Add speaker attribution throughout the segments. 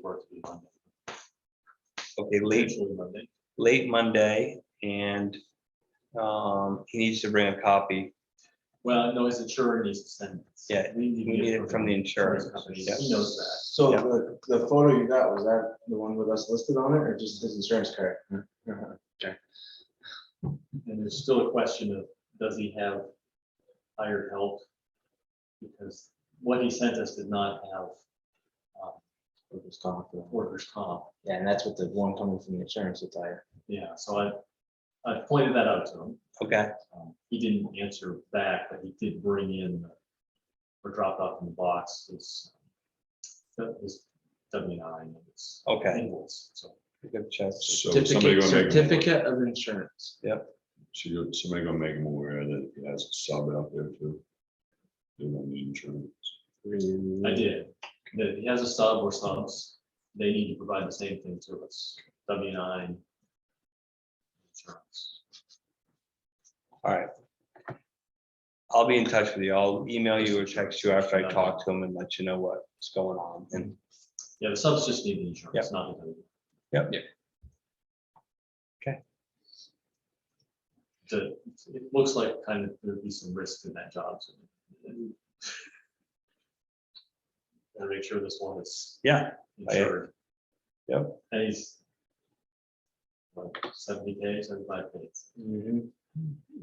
Speaker 1: for it to be Monday.
Speaker 2: Okay, late,
Speaker 1: Potentially Monday.
Speaker 2: late Monday and um, he needs to bring a copy.
Speaker 1: Well, no, his insurer needs to send. it.
Speaker 2: Yeah,
Speaker 1: We
Speaker 2: We need it from the insurance
Speaker 1: company.
Speaker 2: yeah.
Speaker 1: He knows that.
Speaker 3: So
Speaker 2: Yeah.
Speaker 3: the, the photo you got, was that the one with us listed on it or just his insurance card? Uh-huh.
Speaker 1: And there's still a question of, does he have hired help? Because what he sent us did not have um,
Speaker 3: We'll just call it the-
Speaker 1: workers' comp.
Speaker 3: Yeah, and that's what the one coming from the insurance attire.
Speaker 1: Yeah, so I, I pointed that out to him.
Speaker 2: Okay,
Speaker 1: Um, He didn't answer back, but he did bring in the- or dropped off in the box his, his W nine. and his
Speaker 2: Okay.
Speaker 1: invoice. So
Speaker 2: we can check.
Speaker 4: So
Speaker 3: Certificate,
Speaker 4: somebody gonna make, a mo-
Speaker 3: certificate of insurance.
Speaker 4: so you're- somebody gonna make them aware that he has a sub out there too. They don't need insurance.
Speaker 1: I did, that he has a sub or subs, they need to provide the same thing to us, W nine. Insurance.
Speaker 2: All right. I'll be in touch with you. I'll email you or text you after I talk to him and let you know what's going on. And
Speaker 1: Yeah, the subs just need the insurance, not the.
Speaker 2: Yep.
Speaker 3: Yep.
Speaker 2: Okay.
Speaker 1: The, it looks like kind of there'd be some risk in that job. so- Gotta make sure this one is
Speaker 2: yeah, I-
Speaker 1: insured.
Speaker 2: Yep.
Speaker 1: And he's. Like seventy days, seventy-five days,
Speaker 3: Mhm.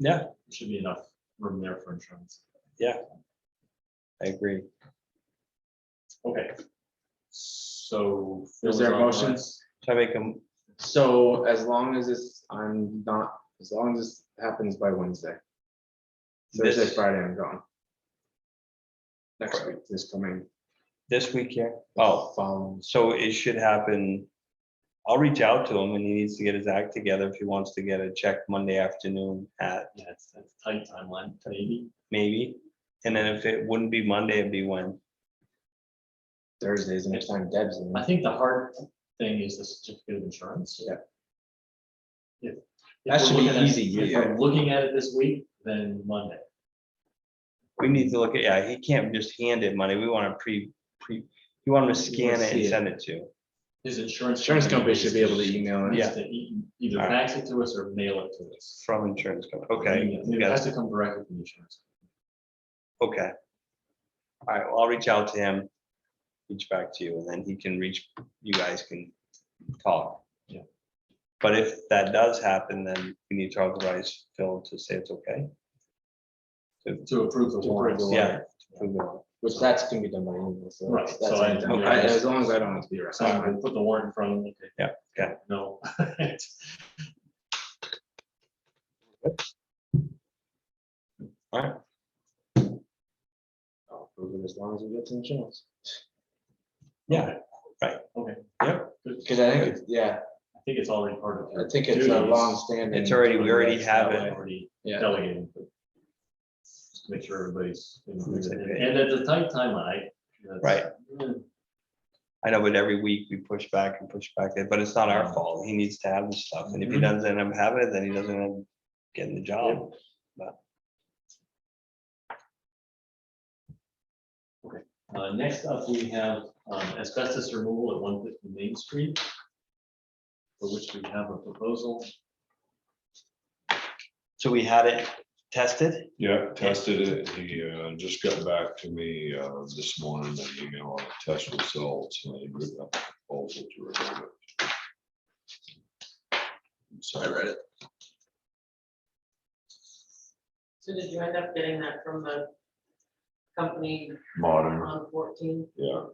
Speaker 2: yeah,
Speaker 1: should be enough room there for insurance.
Speaker 2: I agree.
Speaker 1: Okay. So.
Speaker 3: Is there a motion?
Speaker 2: So I make him,
Speaker 3: So as long as it's, I'm not, as long as this happens by Wednesday. Thursday,
Speaker 2: this,
Speaker 3: Friday, I'm gone. Next week, this coming.
Speaker 2: this week here. Oh,
Speaker 3: Following.
Speaker 2: so it should happen. I'll reach out to him and he needs to get his act together if he wants to get a check Monday afternoon at
Speaker 1: Yeah, it's it's tight timeline, maybe.
Speaker 2: maybe. And then if it wouldn't be Monday, it'd be when?
Speaker 3: Thursdays, next time Deb's in.
Speaker 1: I think the hard thing is the certificate of insurance.
Speaker 3: Yeah.
Speaker 1: If- if
Speaker 3: That
Speaker 1: we're
Speaker 3: should be
Speaker 1: looking at-
Speaker 3: easy,
Speaker 1: If
Speaker 3: yeah.
Speaker 1: we're looking at it this week, then Monday.
Speaker 2: We need to look at, yeah, he can't just hand it money. We want to pre, pre, you want him to scan it and
Speaker 3: see it.
Speaker 2: send it to. you.
Speaker 1: His insurance.
Speaker 3: Insurance company should be able to email it.
Speaker 1: needs to e- Either
Speaker 2: All
Speaker 1: fax it to us or mail it to us.
Speaker 2: From insurance company, okay,
Speaker 1: Email.
Speaker 2: we
Speaker 1: It
Speaker 2: got
Speaker 1: has to come directly from the insurance.
Speaker 2: it. okay. All right, well, I'll reach out to him, reach back to you, and then he can reach, you guys can talk.
Speaker 1: Yeah.
Speaker 2: But if that does happen, then we need to authorize Phil to say it's okay.
Speaker 1: To approve the
Speaker 3: To approve the
Speaker 1: warrants.
Speaker 2: Yeah. Move on.
Speaker 3: Which that's gonna be done by email, so.
Speaker 1: Right,
Speaker 3: that's- that's
Speaker 1: so I-
Speaker 3: anytime.
Speaker 2: okay.
Speaker 3: I- As long as I don't have to be
Speaker 1: So I'm
Speaker 3: around.
Speaker 1: gonna put the warrant in front of me.
Speaker 2: Yeah, okay.
Speaker 1: No.
Speaker 3: I'll approve it As long as we get to insurance.
Speaker 2: Yeah, right.
Speaker 1: Okay.
Speaker 2: Yep.
Speaker 1: Good.
Speaker 3: Cause I think, it's- yeah,
Speaker 1: I think it's already part of.
Speaker 3: I
Speaker 1: your
Speaker 3: think it's a
Speaker 1: duties.
Speaker 3: long standing.
Speaker 2: It's already, we already have
Speaker 1: That way
Speaker 2: it,
Speaker 1: Already
Speaker 3: Yeah,
Speaker 1: delegating. but just Make sure everybody's. in agreement.
Speaker 2: Looks like it.
Speaker 1: And at the tight timeline. that's-
Speaker 2: Right.
Speaker 1: Yeah.
Speaker 2: I know, but every week we push back and push back, but it's not our fault, he needs to have the stuff, and if he
Speaker 1: Mhm.
Speaker 2: doesn't end up having it, then he doesn't end up getting the job.
Speaker 1: Uh, next up, we have um, asbestos removal at one fifty Main Street. For which we have a proposal.
Speaker 2: So we had it tested,
Speaker 4: Yeah, tested it. He uh, just got back to me uh, this morning, that email on the test results. and I wrote up a proposal to remove it. So I read it.
Speaker 5: So did you end up getting that from the company
Speaker 4: Modern,
Speaker 5: on fourteen?
Speaker 4: yeah.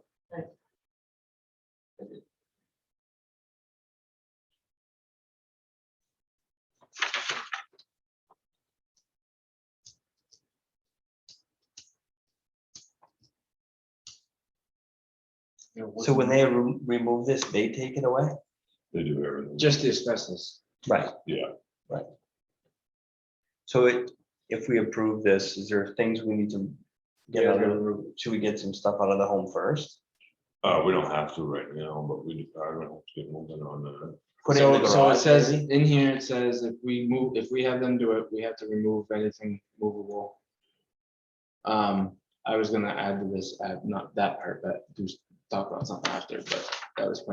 Speaker 1: You know, what's
Speaker 2: so when
Speaker 1: the-
Speaker 2: they re- remove this, they take it away?
Speaker 4: They do everything.
Speaker 3: just the asbestos.
Speaker 2: Right.
Speaker 4: Yeah.
Speaker 2: Right. So it, if we approve this, is there things we need to get out of, the- should we get some stuff out of the home first?
Speaker 4: Uh, we don't have to right now, but we, I don't have to get moving on that.
Speaker 2: Put it in
Speaker 3: So,
Speaker 2: the
Speaker 3: so it
Speaker 2: garage,
Speaker 3: says,
Speaker 2: maybe?
Speaker 3: in here, it says if we move, if we have them do it, we have to remove anything movable. Um, I was gonna add to this, uh, not that part, but do s- talk about something after, but that was